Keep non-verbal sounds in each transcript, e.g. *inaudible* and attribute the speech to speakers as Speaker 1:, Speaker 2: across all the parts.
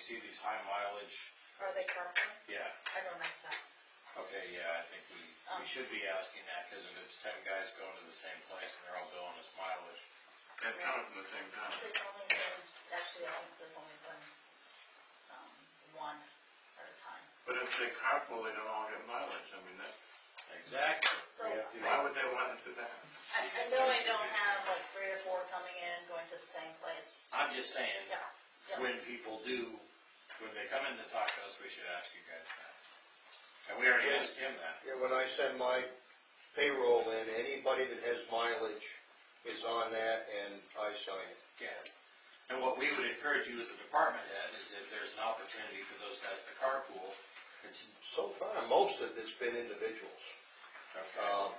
Speaker 1: see these high mileage,
Speaker 2: Are they purple?
Speaker 1: yeah,
Speaker 2: I don't know that.
Speaker 1: okay, yeah, I think we, we should be asking that, cause if it's ten guys going to the same place and they're all doing this mileage,
Speaker 3: They're coming from the same town.
Speaker 2: There's only, been- actually, I think there's only been, um, one at a time.
Speaker 3: But if they carpool, they don't all get mileage. I mean, that,
Speaker 1: exactly. We
Speaker 2: So,
Speaker 1: have to-
Speaker 3: why would they want to do that?
Speaker 2: I, I know I don't have like three or four coming in, going to the same place.
Speaker 1: I'm just saying,
Speaker 2: Yeah, yeah.
Speaker 1: when people do, when they come in to talk to us, we should ask you guys that. And we already asked him that.
Speaker 4: Yeah, when I send my payroll in, anybody that has mileage is on that and I sign it.
Speaker 1: Yeah. And what we would encourage you as a department head is if there's an opportunity for those guys to carpool, it's,
Speaker 4: So far, most of it's been individuals,
Speaker 1: okay,
Speaker 4: um,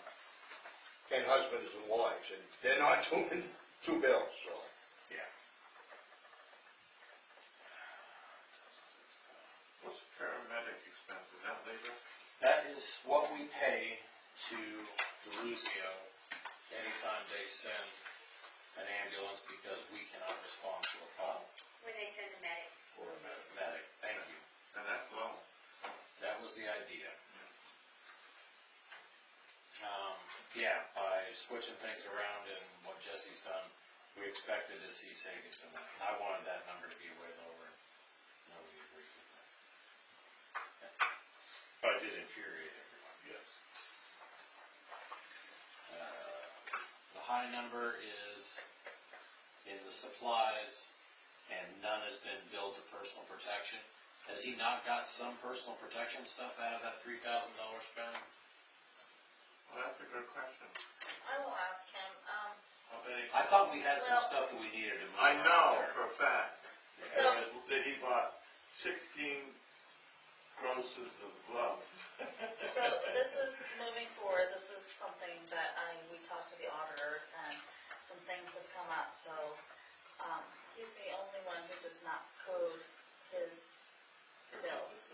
Speaker 4: and husbands and wives, and they're not *laughs* doing two bills, so. *laughs*
Speaker 3: What's paramedic expense? Is that labor?
Speaker 1: that is what we pay to DeLuzio anytime they send an ambulance because we cannot respond to a call
Speaker 5: When they send the medic,
Speaker 1: for a med- medic. Thank you.
Speaker 3: And that's low.
Speaker 1: That was the idea. Um, yeah, by switching things around and what Jesse's done, we expected to see savings in that. I wanted that number to be way lower. Nobody agreed with that. But it did infuriate everyone. Yes. Uh, The high number is in the supplies, and none has been billed to personal protection. Has he not got some personal protection stuff out of that three thousand dollar spend?
Speaker 3: Well, that's a good question.
Speaker 2: I will ask him, um,
Speaker 3: How many?
Speaker 1: I thought we had some
Speaker 2: Well-
Speaker 1: stuff that we needed to move
Speaker 3: I know
Speaker 1: around there.
Speaker 3: for a fact
Speaker 2: So-
Speaker 3: because that he bought sixteen grosses of gloves. *laughs*
Speaker 2: so this is, moving forward, this is something that I, we talked to the auditors and some things have come up, so, um, he's the only one who does not code his bills.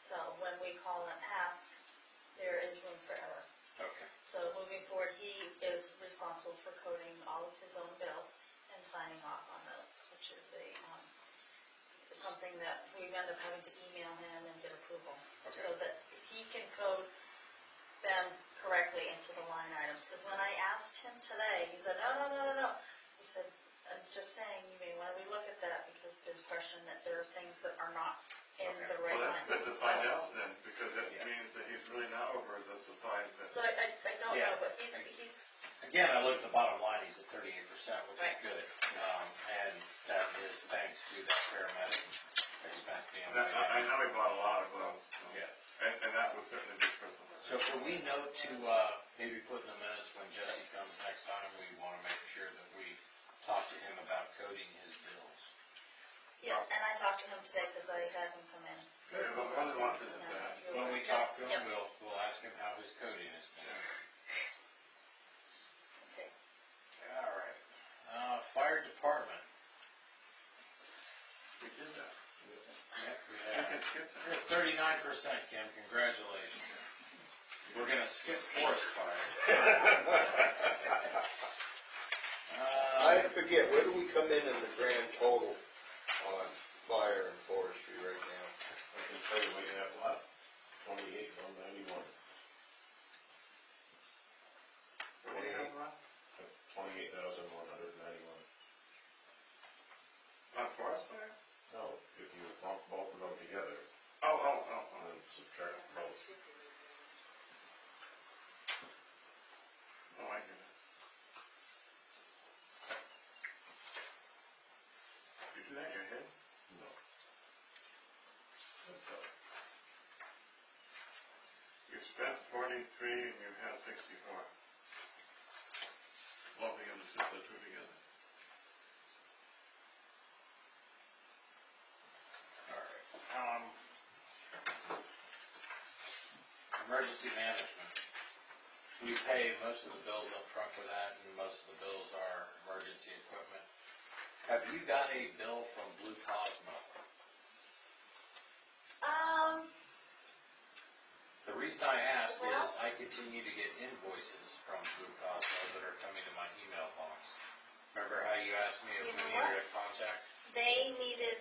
Speaker 2: So when we call and ask, there is room for error.
Speaker 1: Okay,
Speaker 2: So moving forward, he is responsible for coding all of his own bills and signing off on those, which is a, um, something that we end up having to email him and get approval. So that he can code them correctly into the line items, because when I asked him today, he said, no, no, no, no, no. He said, I'm just saying, you may want to relook at that, because there's question that there are things that are not in the
Speaker 1: Okay.
Speaker 2: right
Speaker 3: Well,
Speaker 2: line.
Speaker 3: that's good to
Speaker 2: So-
Speaker 3: find out then, because that
Speaker 1: Yeah.
Speaker 3: means that he's really not over the supplies that.
Speaker 2: So I, I I don't know,
Speaker 1: Yeah.
Speaker 2: but he's, he's,
Speaker 1: again, I look at the bottom line, he's at thirty-eight percent, which is
Speaker 2: Right.
Speaker 1: good. Um, and that is thanks to that paramedic expense being.
Speaker 3: And that- I I know he bought a lot of gloves. so-
Speaker 1: Yeah.
Speaker 3: And, and that would certainly be personal.
Speaker 1: So can we note to, uh, maybe put in the minutes when Jesse comes next time, we wanna make sure that we talk to him about coding his bills.
Speaker 2: yeah, and I talked to him today because I had him come in.
Speaker 3: Yeah, but one of the ones is that.
Speaker 1: When we
Speaker 2: Yep,
Speaker 1: talk to him,
Speaker 2: yep,
Speaker 1: we'll, we'll ask him how his coding is going.
Speaker 2: okay.
Speaker 1: All right. Uh, fire department.
Speaker 3: We did that.
Speaker 1: Yep, we
Speaker 3: We
Speaker 1: have-
Speaker 3: can skip that.
Speaker 1: You're at thirty-nine percent, Kim, congratulations. We're gonna skip forest fire.
Speaker 4: I
Speaker 1: Uh,
Speaker 4: forget, where do we come in in the grand total on fire and forestry right now?
Speaker 6: I can tell you, we have lot twenty-eight, one ninety-one,
Speaker 3: What do we have left?
Speaker 6: twenty-eight thousand, one hundred ninety-one.
Speaker 3: On forest fire?
Speaker 6: No, if you lump both of them together
Speaker 3: Oh, oh, oh,
Speaker 6: and
Speaker 3: oh.
Speaker 6: then subtract both,
Speaker 3: Oh, I hear that. You do that in your head?
Speaker 6: no.
Speaker 3: You spent forty-three and you had sixty-four. Lumping them to the two together.
Speaker 1: all right. Um, Emergency management. We pay most of the bills up front for that, and most of the bills are emergency equipment. Have you got a bill from Blue Cosmo?
Speaker 2: Um,
Speaker 1: The reason I ask is I continue to get invoices from Blue Cosmo that are coming to my email box. Remember how you asked me if
Speaker 2: You
Speaker 1: we
Speaker 2: know
Speaker 1: needed a contact?
Speaker 2: they needed